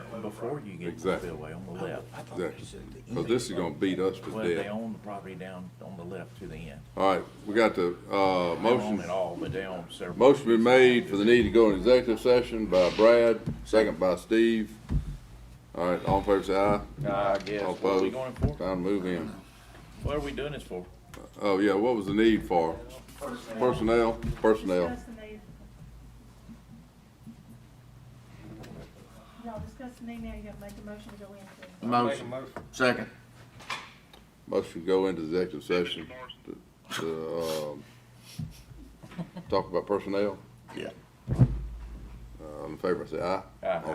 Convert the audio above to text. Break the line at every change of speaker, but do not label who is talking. even before you get to the
Exactly.
spillway on the left.
Exactly. Because this is gonna beat us
Well,
to
they
death.
own the property down on the left to the end.
All right, we got the, uh,
They don't own
motion,
it all, but they own several.
motion been made for the need to go in executive session by Brad, second by Steve. All right, all in favor say aye.
I guess,
All
what are we
opposed?
going for?
Time to move in.
What are we doing this for?
Oh, yeah, what was the need for? Personnel, personnel.
Discuss the need. Y'all discuss the need now, you gotta make a motion to go into.
Motion. Second.
Motion to go into executive session to, to, um, talk about personnel.
Yeah.
Uh, All in favor, say aye.
Aye.
All